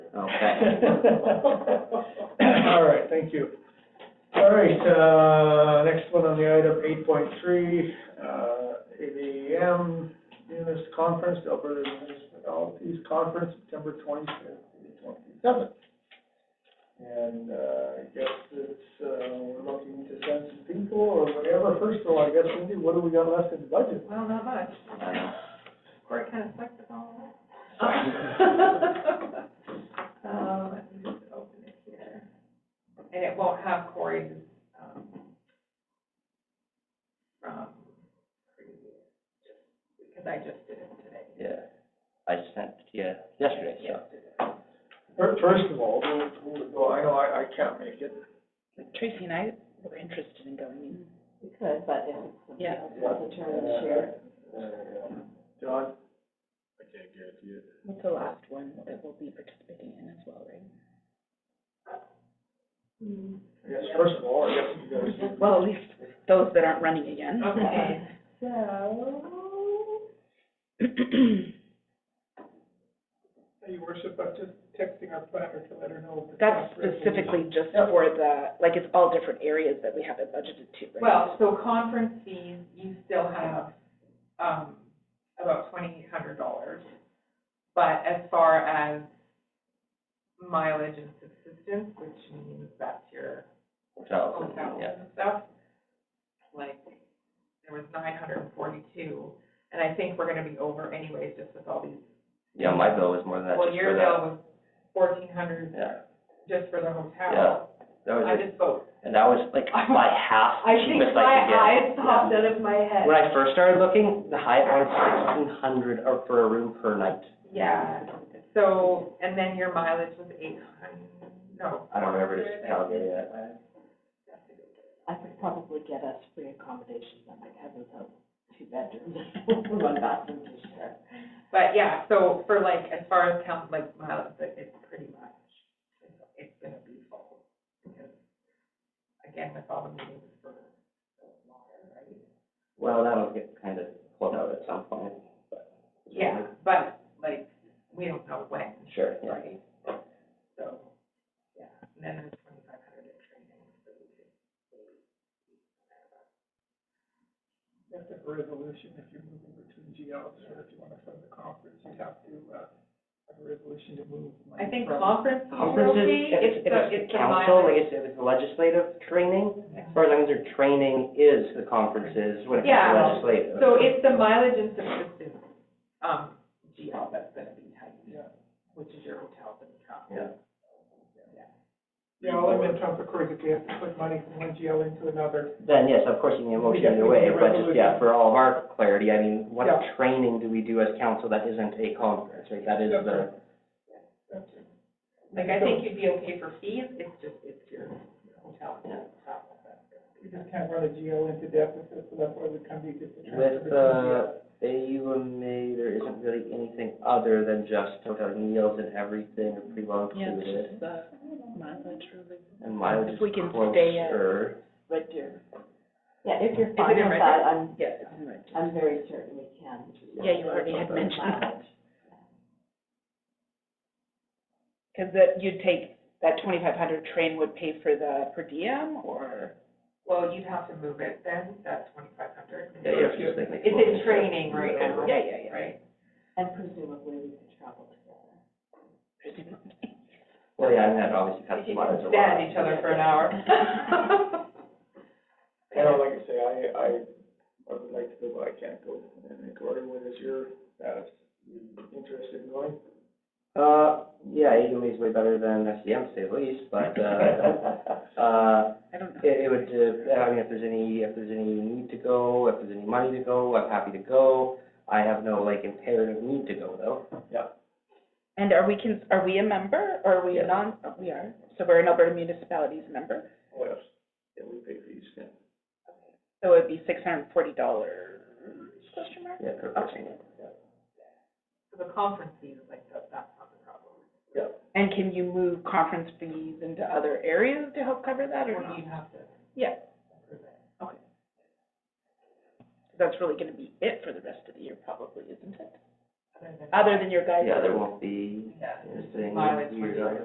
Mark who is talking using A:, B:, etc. A: Okay.
B: All right, thank you. All right, uh, next one on the item, eight point three, uh, ABM, Munis Conference, Alberta Municipalities Conference, September twenty-fifth to twenty-seventh. And, uh, I guess it's, uh, we're looking to send some people or whatever. First of all, I guess, Cindy, what do we got left in the budget?
C: Well, not much.
A: Uh,
C: Court kind of sucked us all. Um, let me just open it here. And it won't have Corey's, um, from previous, just because I just did it today.
A: Yeah, I sent it to you yesterday, so.
B: Fir- First of all, who- who would go? I know I, I can't make it.
D: Tracy and I were interested in going.
E: We could, but if somebody
D: Yeah.
E: else wasn't turning this year,
B: Uh, John?
D: What's the last one that we'll be participating in as well, right?
B: Yes, first of all, I guess you guys.
D: Well, at least those that aren't running again.
C: Okay, so,
B: Your worship, I'm just texting our planner to let her know.
D: That's specifically just for the, like, it's all different areas that we have it budgeted to, right?
C: well, so conference fees, you still have, um, about twenty-eight hundred dollars. But as far as mileage and subsistence, which means that's your
A: Hotels and,
C: hotels
A: yeah.
C: and stuff, like, there was nine hundred and forty-two, and I think we're gonna be over anyways, just with all these.
A: Yeah, my bill was more than that
C: Well,
A: just
C: your
A: for that.
C: bill was fourteen hundred
A: Yeah,
C: just for the hotel.
A: Yeah. that was,
C: I
A: it.
C: just vote.
A: and that was like my half
E: I think
A: cheapest I could get. Yeah.
E: out of my head.
A: When I first started looking, the high one sixteen hundred or for a room per night.
C: Yeah, so, and then your mileage was eight hundred, no.
A: I don't remember if it's Calgary yet.
E: I could probably get us free accommodations at my cousin's house, two bedrooms, one bathroom to share.
C: But yeah, so for like, as far as count, like miles, like it's pretty much, it's- it's gonna be full. Because again, with all the meetings for the water, right?
A: Well, that'll get kind of pulled out at some point.
C: Yeah, but like, we don't know when,
A: Sure, yeah.
C: right? So, yeah, and then there's twenty-five hundred in training, so we could.
B: That's a resolution, if you're moving between GLs, or if you want to fund the conference, you have to, uh, have a resolution to move money
C: I think
B: from-
C: conference is okay,
A: Conferences, if
C: it's
A: it's, if
C: the,
A: it's
C: it's the
A: council, like
C: mileage.
A: if it's legislative training, as far as I'm concerned, training is the conferences when it comes
C: Yeah.
A: to legislative.
C: So it's the mileage and subsistence, um, GL that's gonna be tight,
B: Yeah.
C: which is your hotels and travel.
A: Yeah.
B: Yeah, all I'm in terms of course, if you have to put money from one GL into another,
A: Then, yes, of course, you need a motion
B: Yeah,
A: either
B: we
A: way,
B: need a
A: but just, yeah, for all of our clarity, I mean, what
B: Yeah.
A: training do we do as council that isn't a conference, right? That is the,
C: Like, I think you'd be okay for fees, it's just, it's your hotel and travel.
B: we just can't run a GL into deficit, so that's why we come to just. a
A: with,
B: transfer between
A: uh,
B: GLs.
A: AUMA, there isn't really anything other than just hotel meals and everything are pretty well
D: Yeah, it's
A: included.
D: just the mileage really.
A: And mileage is
D: If we can stay at-
A: closer.
E: Red Deer. Yeah, if you're fine
D: in
E: with
D: Red
E: that,
D: Deer?
E: I'm,
D: Yeah, it's in Red Deer.
E: I'm very certain we can.
D: Yeah, you already had mentioned that.
E: Mileage.
D: Because that, you'd take, that twenty-five hundred train would pay for the per diem, or?
C: Well, you'd have to move it then, that's twenty-five hundred.
A: Yeah, yeah, if you just think like
C: It's
A: smoking
C: in training
A: section,
C: right
A: it's
C: now.
A: over.
D: Yeah, yeah, yeah.
C: Right?
E: And presumably we could travel together.
A: Well, yeah, and that obviously
C: If
A: cuts
C: you
A: mileage
C: can
A: a lot.
C: stand each other for an hour.
B: You know, like I say, I, I, I would like to go, but I can't go, and Gordon, what is your, uh, interested in going?
A: Uh, yeah, AUMA is way better than SDM, to say the least, but, uh, uh,
D: I don't know.
A: It, it would, uh, I mean, if there's any, if there's any need to go, if there's any money to go, I'm happy to go. I have no, like, imperative need to go, though.
D: And are we, cons- are we a member, or are we
A: Yes.
D: a non, oh, we are, so we're an Alberta Municipalities member,
B: What else? Yeah, we pay fees, yeah.
D: so it'd be six hundred and forty dollars, question mark?
A: Yeah, per person.
C: So the conference fees, like, that, that's not the problem.
D: And can you move conference fees into other areas to help cover that, or
C: Or
D: not?
C: you'd have to.
D: Yeah. Okay. That's really gonna be it for the rest of the year, probably, isn't it?
A: other than.
F: other than your guidance.
D: Yeah, there won't be,
A: Yeah,
D: anything
A: mileage would be-
D: weird on it.